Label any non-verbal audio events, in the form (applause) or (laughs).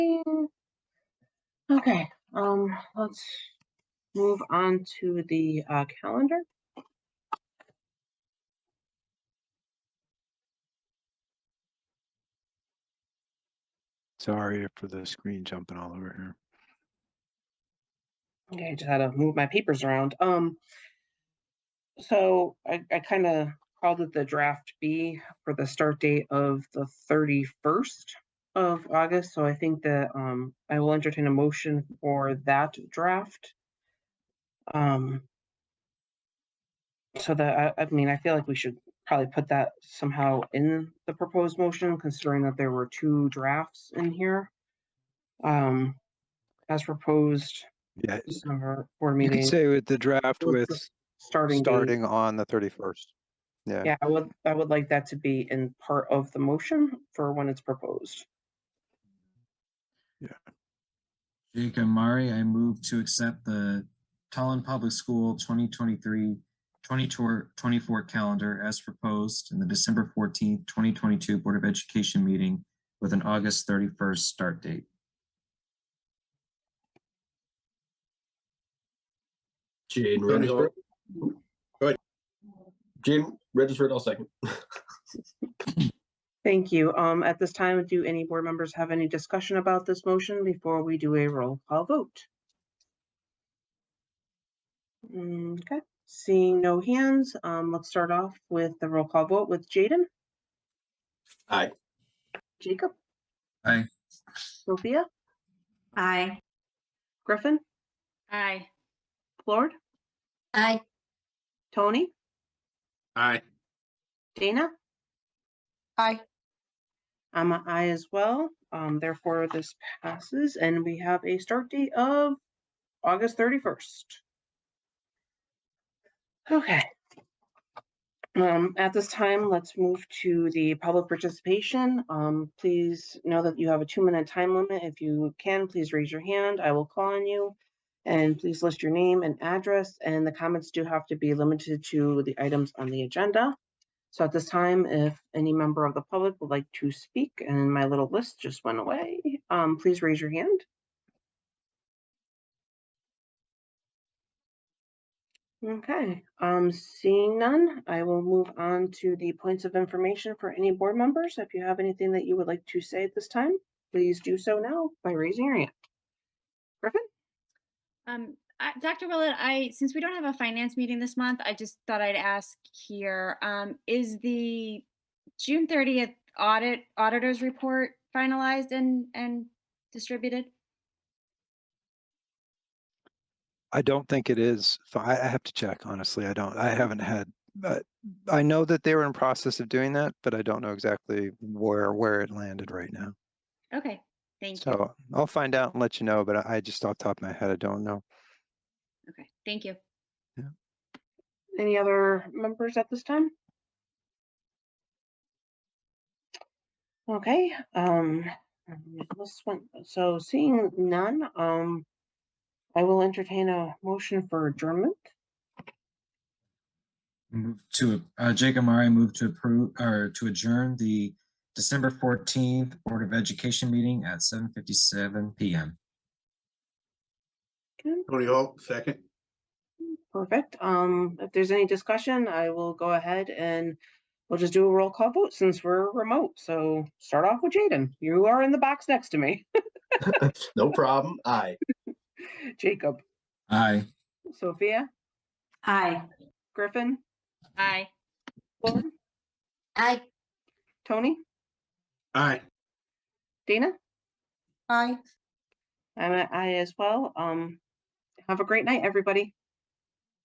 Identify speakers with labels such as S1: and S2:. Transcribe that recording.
S1: Okay, um, let's move on to the uh, calendar.
S2: Sorry for the screen jumping all over here.
S1: Okay, I just had to move my papers around. Um, so I, I kind of called it the draft B for the start date of the 31st of August. So I think that um, I will entertain a motion for that draft. Um, so that I, I mean, I feel like we should probably put that somehow in the proposed motion, considering that there were two drafts in here. Um, as proposed,
S2: Yeah,
S1: December board
S2: you
S1: meeting
S2: could say with the draft
S1: Well,
S2: with
S1: it's starting. date.
S2: starting on the thirty-first. Yeah.
S1: Yeah, I would, I would like that to be in part of the motion for when it's proposed.
S3: Jake Amari, I move to accept the Tallinn Public School 2023, 2024 calendar as proposed in the December 14th, 2022 Board of Education meeting with an August 31st start date.
S4: Jane
S5: Tony,
S4: registered.
S5: go-
S4: Go ahead. Jane registered, I'll second.
S1: Thank you. Um, at this time, do any board members have any discussion about this motion before we do a roll call vote? Mm, Okay, seeing no hands, um, let's start off with the roll call vote with Jaden,
S4: Aye.
S1: Jacob.
S3: Aye.
S1: Sophia,
S6: Aye.
S1: Griffin,
S6: Aye.
S1: Lord,
S6: Aye.
S1: Tony,
S4: Aye.
S1: Dana.
S6: Aye.
S1: I'm an aye as well. Um, therefore, this passes and we have a start date of August thirty-first. Okay. Um, at this time, let's move to the public participation. Um, please know that you have a two-minute time limit. If you can, please raise your hand. I will call on you. And please list your name and address, and the comments do have to be limited to the items on the agenda. So at this time, if any member of the public would like to speak, and my little list just went away, um, please raise your hand. Okay, um, seeing none, I will move on to the points of information for any board members. If you have anything that you would like to say at this time, please do so now by raising your hand. Griffin?
S7: Um, I- Dr. Willett, I, since we don't have a finance meeting this month, I just thought I'd ask here, um, is the June thirtieth audit, auditor's report finalized and, and distributed?
S2: I don't think it is. So I, I have to check, honestly. I don't, I haven't had, uh, I know that they were in process of doing that, but I don't know exactly where, where it landed right now.
S7: Okay, thank you.
S2: So I'll find out and let you know, but I- I just off the top of my head, I don't know.
S7: Okay, thank you.
S1: Any other members at this time? Okay, um, um, this one, so seeing none, um, I will entertain a motion for adjournment.
S3: Move To, uh, Jake Amari moved to approve, or to adjourn the December 14th Board of Education meeting at 7:57 PM.
S1: Okay,
S5: Tony Hawk, second.
S1: Perfect. Um, if there's any discussion, I will go ahead and we'll just do a roll call vote since we're remote. So start off with Jaden. You are in the box next to me. (laughs)
S4: No problem. Aye.
S1: Jacob,
S3: Aye.
S1: Sophia,
S6: Aye.
S1: Griffin,
S7: Bye.
S1: Lauren,
S6: Aye.
S1: Tony,
S4: Aye.
S1: Dana?
S6: Aye.
S1: I'm an I as well. Um, have a great night, everybody.